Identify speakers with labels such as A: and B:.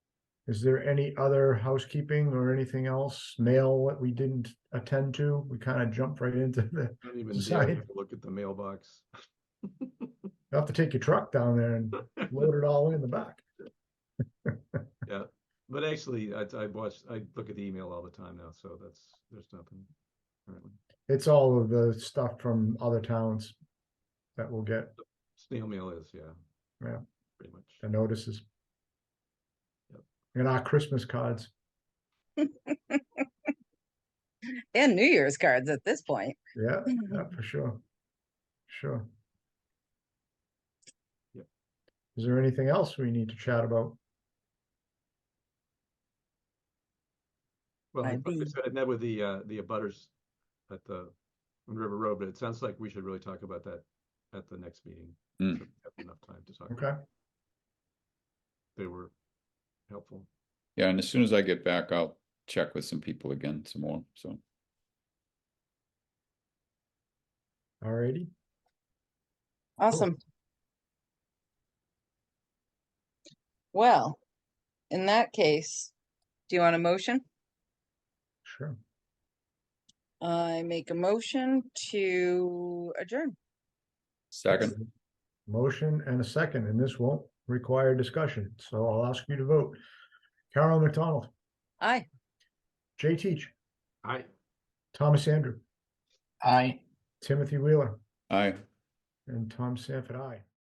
A: Is there any other housekeeping or anything else, mail that we didn't attend to? We kind of jumped right into the,
B: Don't even dare
A: Sorry.
B: take a look at the mailbox.
A: you'll have to take your truck down there and load it all in the back.
B: But actually, I, I watch, I look at the email all the time now, so that's, there's nothing. currently.
A: It's all of the stuff from other towns that we'll get
B: Snail mail is, yeah.
A: Yeah.
B: Pretty much.
A: the notices.
B: Yep.
A: And our Christmas cards.
C: And New Year's cards at this point.
A: Yeah, yeah, for sure. Sure.
B: Yep.
A: Is there anything else we need to chat about?
B: Well, I
C: I'd
B: like I
C: be-
B: said, I met with the, uh, the abutters at the, on River Road, but it sounds like we should really talk about that at the next meeting.
D: Mm.
B: So we have Enough time to talk. about
A: Okay,
B: it. They were helpful.
D: Yeah, and as soon as I get back, I'll check with some people again some more, so.
A: alrighty.
C: Awesome. Well, in that case, do you want a motion?
A: Sure.
C: I make a motion to adjourn.
D: Second,
A: Motion and a second, and this won't require discussion, so I'll ask you to vote. Carol McDonald,
C: Aye.
A: Jay Teach,
B: I,
A: Thomas Andrew,
E: Aye.
A: Timothy Wheeler,
D: aye.
A: and Tom Sanford, aye.